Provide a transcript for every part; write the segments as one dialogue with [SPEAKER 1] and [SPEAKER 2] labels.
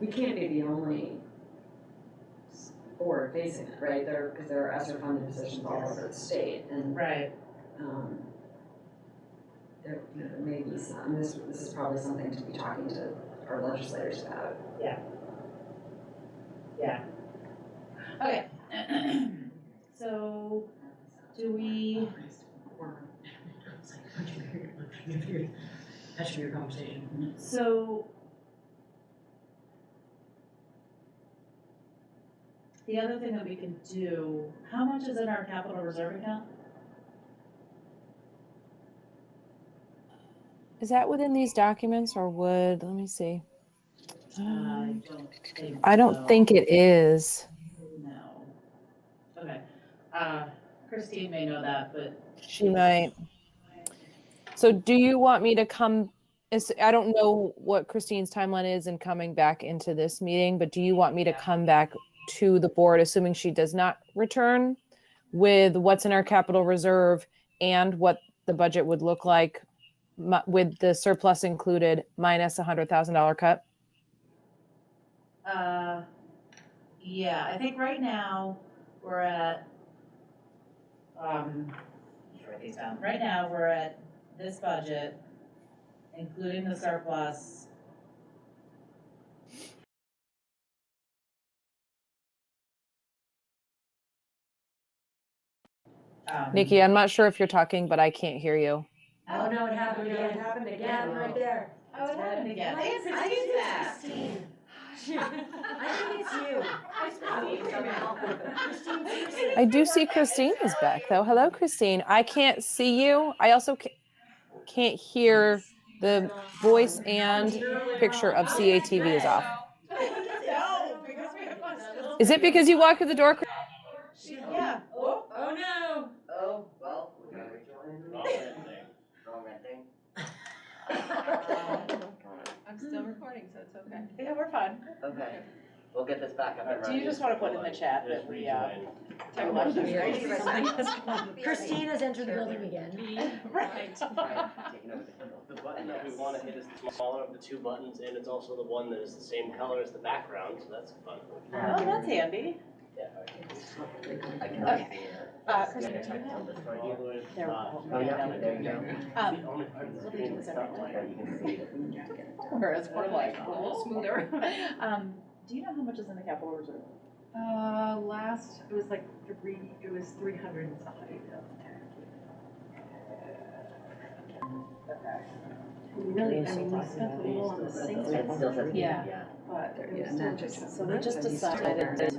[SPEAKER 1] we can't be the only s- board facing it, right? There, because there are ESSER funded positions all over the state and,
[SPEAKER 2] Right,
[SPEAKER 1] um, there, you know, there may be some, this, this is probably something to be talking to our legislators about.
[SPEAKER 2] okay. So, do we,
[SPEAKER 3] That should be a conversation.
[SPEAKER 2] so. The other thing that we can do, how much is in our capital reserve account?
[SPEAKER 4] Is that within these documents or would, let me see.
[SPEAKER 2] I don't think.
[SPEAKER 4] Uh, I
[SPEAKER 2] Um, so.
[SPEAKER 4] don't think it is.
[SPEAKER 2] No. Okay, uh, Christine may know that, but
[SPEAKER 4] She might. So do you want me to come, is- I don't know what Christine's timeline is in coming back into this meeting, but do you want me to
[SPEAKER 2] Yeah.
[SPEAKER 4] come back to the board, assuming she does not return with what's in our capital reserve and what the budget would look like mi- with the surplus included minus a hundred thousand dollar cut?
[SPEAKER 2] Uh, yeah, I think right now we're at, um, let me write these down. Right now, we're at this budget, including the surplus. Um,
[SPEAKER 4] Nikki, I'm not sure if you're talking, but I can't hear you.
[SPEAKER 1] Oh, no, it happened
[SPEAKER 5] again.
[SPEAKER 1] It happened again,
[SPEAKER 5] Yeah,
[SPEAKER 1] right
[SPEAKER 5] right
[SPEAKER 1] there.
[SPEAKER 5] there.
[SPEAKER 2] Oh, it happened again. They
[SPEAKER 5] I
[SPEAKER 2] have
[SPEAKER 5] think
[SPEAKER 2] Christine back.
[SPEAKER 5] it's Christine. I think it's you.
[SPEAKER 4] I do see Christine is back though. Hello, Christine. I can't see you. I also ca- can't hear the voice and picture of CATV is off.
[SPEAKER 2] No, because we have lost this.
[SPEAKER 4] Is it because you walked through the door? Chris-
[SPEAKER 2] Yeah. Oh,
[SPEAKER 1] Oh, no.
[SPEAKER 5] Oh, well, we gotta
[SPEAKER 6] Wrong thing.
[SPEAKER 5] wrong that thing.
[SPEAKER 7] I'm still recording, so it's okay.
[SPEAKER 2] Um, yeah, we're fine.
[SPEAKER 5] Okay, we'll get this back up and
[SPEAKER 2] Do you
[SPEAKER 5] running.
[SPEAKER 2] just want to put in the chat
[SPEAKER 6] There's
[SPEAKER 2] that we, uh,
[SPEAKER 6] rejoin.
[SPEAKER 8] Christine
[SPEAKER 5] has entered
[SPEAKER 8] the building again.
[SPEAKER 2] right?
[SPEAKER 6] The button that we wanna hit is the smaller of the two buttons, and it's also the one that is the same color as the background, so that's fun.
[SPEAKER 2] Oh, that's handy.
[SPEAKER 5] I cannot see
[SPEAKER 2] Uh,
[SPEAKER 6] All
[SPEAKER 5] her.
[SPEAKER 6] the way to the
[SPEAKER 2] There.
[SPEAKER 6] top.
[SPEAKER 5] Oh, yeah, there you go.
[SPEAKER 6] It's
[SPEAKER 2] um,
[SPEAKER 6] the only part of the
[SPEAKER 2] we'll
[SPEAKER 6] screen
[SPEAKER 2] do
[SPEAKER 6] that's
[SPEAKER 2] this
[SPEAKER 6] not
[SPEAKER 2] every
[SPEAKER 6] white.
[SPEAKER 5] You can see it.
[SPEAKER 2] Whereas we're like,
[SPEAKER 7] A little smoother.
[SPEAKER 2] Um, do you know how much is in the capital reserve?
[SPEAKER 7] Uh, last, it was like three, it was three hundred and something. We really, I mean, we spent a little on the sinks,
[SPEAKER 5] It still says.
[SPEAKER 2] Yeah.
[SPEAKER 7] but it
[SPEAKER 1] Yeah, and
[SPEAKER 7] was still
[SPEAKER 1] that
[SPEAKER 7] just.
[SPEAKER 1] just-
[SPEAKER 2] So we just
[SPEAKER 1] That's what you
[SPEAKER 2] decided
[SPEAKER 1] stole.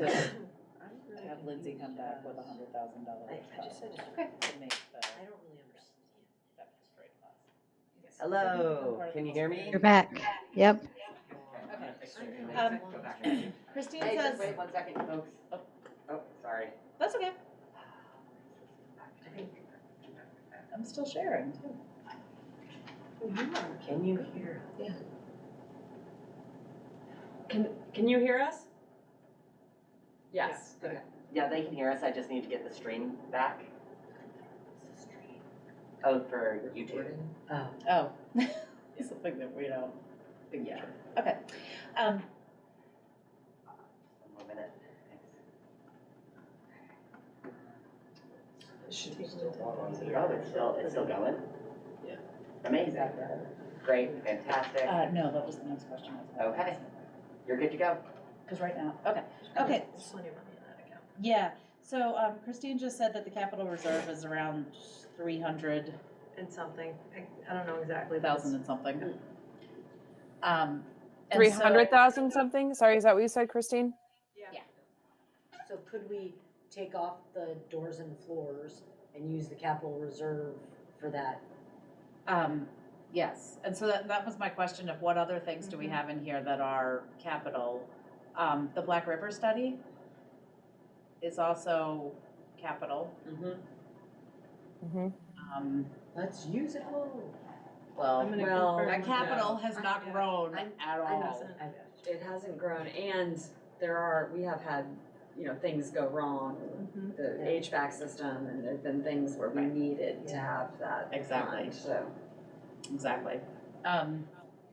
[SPEAKER 2] to have Lindsay come back with a hundred thousand
[SPEAKER 5] I-
[SPEAKER 2] dollars.
[SPEAKER 5] I just said it.
[SPEAKER 2] To make the.
[SPEAKER 5] I don't really understand.
[SPEAKER 2] deficit rate less.
[SPEAKER 5] Hello, can you hear me?
[SPEAKER 9] You're back. Yep.
[SPEAKER 2] Um,
[SPEAKER 5] Go back. Hey,
[SPEAKER 2] Christine
[SPEAKER 5] just
[SPEAKER 2] says,
[SPEAKER 5] wait one second, folks. Oh, oh, sorry.
[SPEAKER 2] that's okay. I'm still sharing too.
[SPEAKER 5] Can you hear?
[SPEAKER 1] Can, can you hear us? Yes.
[SPEAKER 5] Okay. Yeah, they can hear us, I just need to get the stream back. Oh, for YouTube.
[SPEAKER 2] Oh. It's something that we don't, yeah, okay. Um,
[SPEAKER 5] One more minute. Oh, it's still, it's still going?
[SPEAKER 6] Yeah.
[SPEAKER 5] Amazing, great, fantastic,
[SPEAKER 2] uh, no, that was the next question.
[SPEAKER 5] okay, you're good to go.
[SPEAKER 2] Because right now, okay, okay,
[SPEAKER 7] There's plenty of money in that account.
[SPEAKER 2] yeah, so um, Christine just said that the capital reserve is around three hundred
[SPEAKER 7] And something, I, I don't know exactly. but it's-
[SPEAKER 2] thousand and something. Um. and so-
[SPEAKER 4] Three hundred thousand something? Sorry, is that what you said, Christine?
[SPEAKER 10] So could we take off the doors and floors and use the capital reserve for that?
[SPEAKER 2] Um, yes, and so that, that was my question of what other things do we
[SPEAKER 4] Mm-hmm.
[SPEAKER 2] have in here that are capital? Um, the Black River study is also capital.
[SPEAKER 1] Mhm.
[SPEAKER 4] Mm-hmm.
[SPEAKER 2] Um,
[SPEAKER 10] Let's use it all.
[SPEAKER 2] well,
[SPEAKER 7] I'm gonna
[SPEAKER 1] Well,
[SPEAKER 7] confirm
[SPEAKER 2] that
[SPEAKER 7] with
[SPEAKER 2] capital
[SPEAKER 7] them.
[SPEAKER 2] has
[SPEAKER 7] I-
[SPEAKER 2] not
[SPEAKER 7] yeah.
[SPEAKER 2] grown
[SPEAKER 1] I'm-
[SPEAKER 2] at
[SPEAKER 7] I
[SPEAKER 2] all.
[SPEAKER 7] wasn't-
[SPEAKER 1] It hasn't grown and there are, we have had, you know, things go wrong.
[SPEAKER 7] Mhm.
[SPEAKER 1] The HVAC system and there've been things where we
[SPEAKER 2] Right.
[SPEAKER 1] needed to have that
[SPEAKER 2] Exactly.
[SPEAKER 1] fund, so.
[SPEAKER 2] Exactly. Um,